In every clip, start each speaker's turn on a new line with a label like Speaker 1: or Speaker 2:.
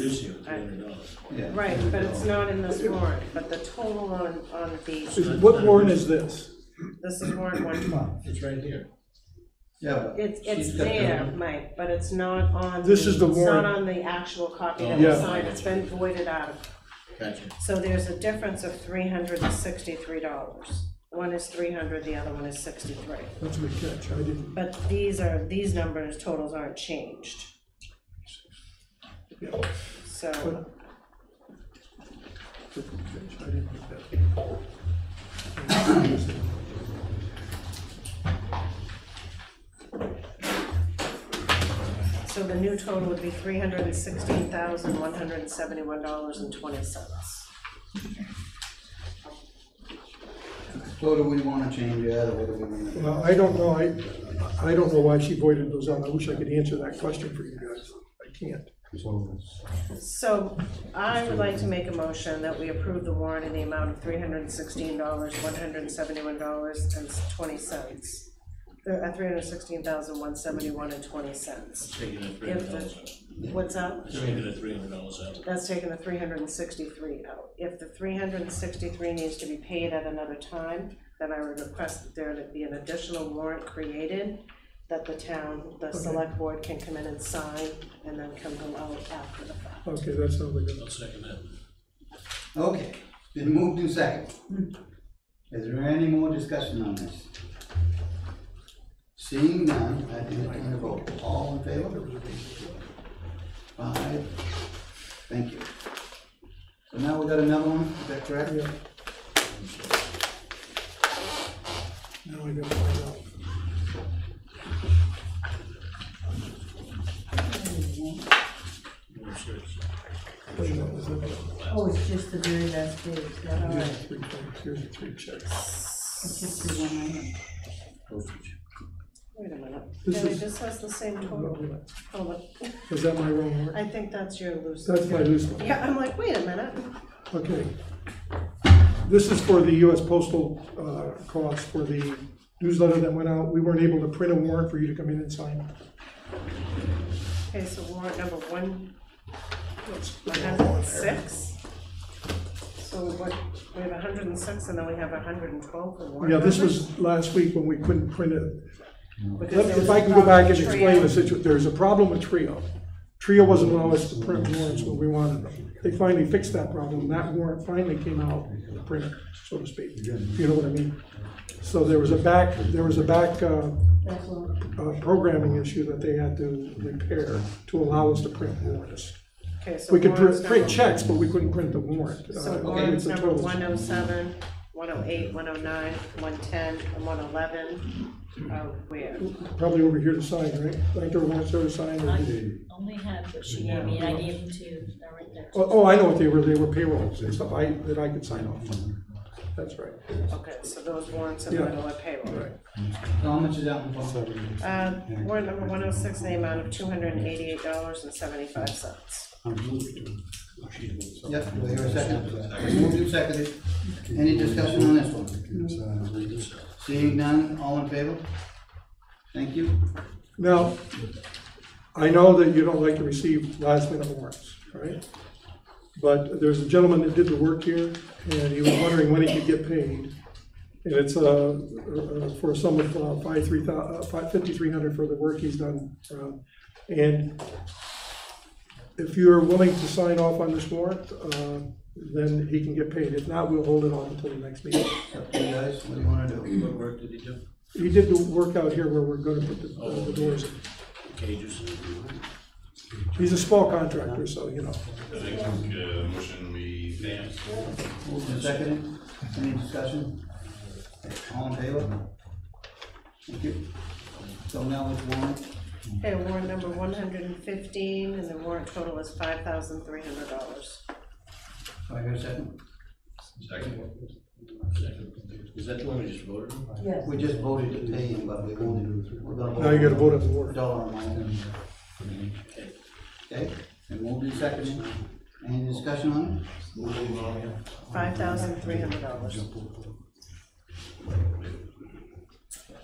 Speaker 1: This year, three hundred dollars.
Speaker 2: Yeah.
Speaker 3: Right, but it's not in this warrant, but the total on, on the,
Speaker 4: Is- What warrant is this?
Speaker 3: this is warrant one twelve.
Speaker 1: It's right here.
Speaker 2: Yeah, but
Speaker 3: It's, it's
Speaker 2: She's got the-
Speaker 3: there, Mike, but it's not on.
Speaker 4: This is the
Speaker 3: It's
Speaker 4: warrant.
Speaker 3: not on the actual copy that was
Speaker 4: Yeah.
Speaker 3: signed, it's been voided out.
Speaker 1: Gotcha.
Speaker 3: So there's a difference of three hundred and sixty-three dollars. One is three hundred, the other one is sixty-three.
Speaker 4: That's a good catch, I didn't,
Speaker 3: But these are, these numbers, totals aren't changed.
Speaker 4: yeah,
Speaker 3: So,
Speaker 4: but. Good catch, I didn't get that.
Speaker 3: so the new total would be three hundred and sixteen thousand, one hundred and seventy-one dollars and twenty cents.
Speaker 2: so do we wanna change that, or what do we wanna?
Speaker 4: Well, I don't know, I, I don't know why she voided those out, I wish I could answer that question for you guys, I can't.
Speaker 3: So I would like to make a motion that we approve the warrant in the amount of three hundred and sixteen dollars, one hundred and seventy-one dollars and twenty cents. Uh, three hundred and sixteen thousand, one seventy-one and twenty cents.
Speaker 1: Taking that three
Speaker 3: If
Speaker 1: hundred
Speaker 3: the-
Speaker 1: dollars out.
Speaker 3: What's up?
Speaker 1: Just taking that three hundred dollars out.
Speaker 3: That's taking the three hundred and sixty-three out. If the three hundred and sixty-three needs to be paid at another time, then I would request that there be an additional warrant created that the town, the select board can come in and sign and then come go out after the fact.
Speaker 4: Okay, that sounds like
Speaker 1: I'll second that.
Speaker 2: Okay, been moved to second. Is there any more discussion on this? Seeing none, I entertain a vote, all in favor? Five, thank you. So now we got another one, is that correct?
Speaker 4: a, yeah. Now I gotta find out.
Speaker 1: Number six.
Speaker 4: Wait a minute, is that-
Speaker 5: Oh, it's just the very last page, is that all
Speaker 4: yeah,
Speaker 5: right?
Speaker 4: three things, Here's the three checks.
Speaker 5: It's just the one item.
Speaker 1: Postage.
Speaker 3: Wait a minute.
Speaker 4: This
Speaker 3: Billy,
Speaker 4: is-
Speaker 3: this has the same total.
Speaker 4: Is
Speaker 3: Hold on.
Speaker 4: that my wrong one?
Speaker 3: I think that's your loose.
Speaker 4: That's my loose one.
Speaker 3: Yeah, I'm like, wait a minute.
Speaker 4: Okay. This is for the US postal uh, cost for the newsletter that went out. We weren't able to print a warrant for you to come in and sign.
Speaker 3: Okay, so warrant number one, one hundred and six. So what, we have hundred and six and then we have hundred and twelve for warrant
Speaker 4: Yeah, this
Speaker 3: numbers?
Speaker 4: was last week when we couldn't print it.
Speaker 3: Because
Speaker 4: Let-
Speaker 3: there was
Speaker 4: If I
Speaker 3: a
Speaker 4: can go back
Speaker 3: problem
Speaker 4: and
Speaker 3: with
Speaker 4: explain the
Speaker 3: trio.
Speaker 4: situation, there's a problem with Trio. Trio wasn't allowing us to print warrants when we wanted them. They finally fixed that problem. That warrant finally came out printed, so to speak, if you know what I mean. So there was a back, there was a back uh,
Speaker 5: That's all.
Speaker 4: uh, programming issue that they had to repair to allow us to print warrants.
Speaker 3: Okay, so
Speaker 4: We could
Speaker 3: warrants
Speaker 4: print, print
Speaker 3: number-
Speaker 4: checks, but we couldn't print the warrant.
Speaker 3: So
Speaker 4: Uh,
Speaker 3: warrants
Speaker 4: it's a
Speaker 3: number
Speaker 4: total.
Speaker 3: 107, 108, 109, 110, and oh one eleven are where?
Speaker 4: Probably over here to sign, right? Like their warrants are signed. or-
Speaker 6: only have what she gave me, and I gave them to you, they're right there.
Speaker 4: Oh, oh, I know what they were, they were payrolls and stuff I, that I could sign off on. That's right,
Speaker 3: Okay, so those warrants are
Speaker 4: Yeah.
Speaker 3: middle of payroll.
Speaker 4: right.
Speaker 2: How much is that one for?
Speaker 3: Uh, warrant number one oh six, the amount of two hundred and eighty-eight dollars and seventy-five cents.
Speaker 2: Yep, do I hear a second? Moved to seconded, any discussion on this one? Seeing none, all in favor? Thank you.
Speaker 4: Now, I know that you don't like to receive last minute warrants, right? But there's a gentleman that did the work here, and he was wondering when he could get paid. And it's, uh, uh, for a sum of uh, five, three thou, uh, five, fifty-three hundred for the work he's done. uh, And if you're willing to sign off on this warrant, uh, then he can get paid. If not, we'll hold it off until the next meeting.
Speaker 2: Up to you guys, what do you wanna do?
Speaker 1: What work did he do?
Speaker 4: He did the work out here where we're gonna put the, uh, the doors. in.
Speaker 1: Cages.
Speaker 4: He's a small contractor, so, you know.
Speaker 7: I think, uh, motion we advance.
Speaker 2: Moved and seconded, any discussion? All in favor? Thank you. So now it's warrant,
Speaker 3: Okay, warrant number one hundred and fifteen, and the warrant total is five thousand three hundred dollars.
Speaker 2: do I hear a second?
Speaker 7: Second.
Speaker 1: Is that the one we just voted on?
Speaker 5: Yes.
Speaker 2: We just voted to pay him, but we voted, we're gonna.
Speaker 4: Now you gotta vote on the warrant.
Speaker 2: Dollar amount. Okay, and moved and seconded, any discussion on
Speaker 3: Five thousand three hundred dollars.
Speaker 2: it?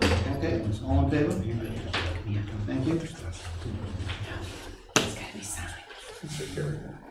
Speaker 2: Okay, all in favor? Thank you.
Speaker 4: So carried.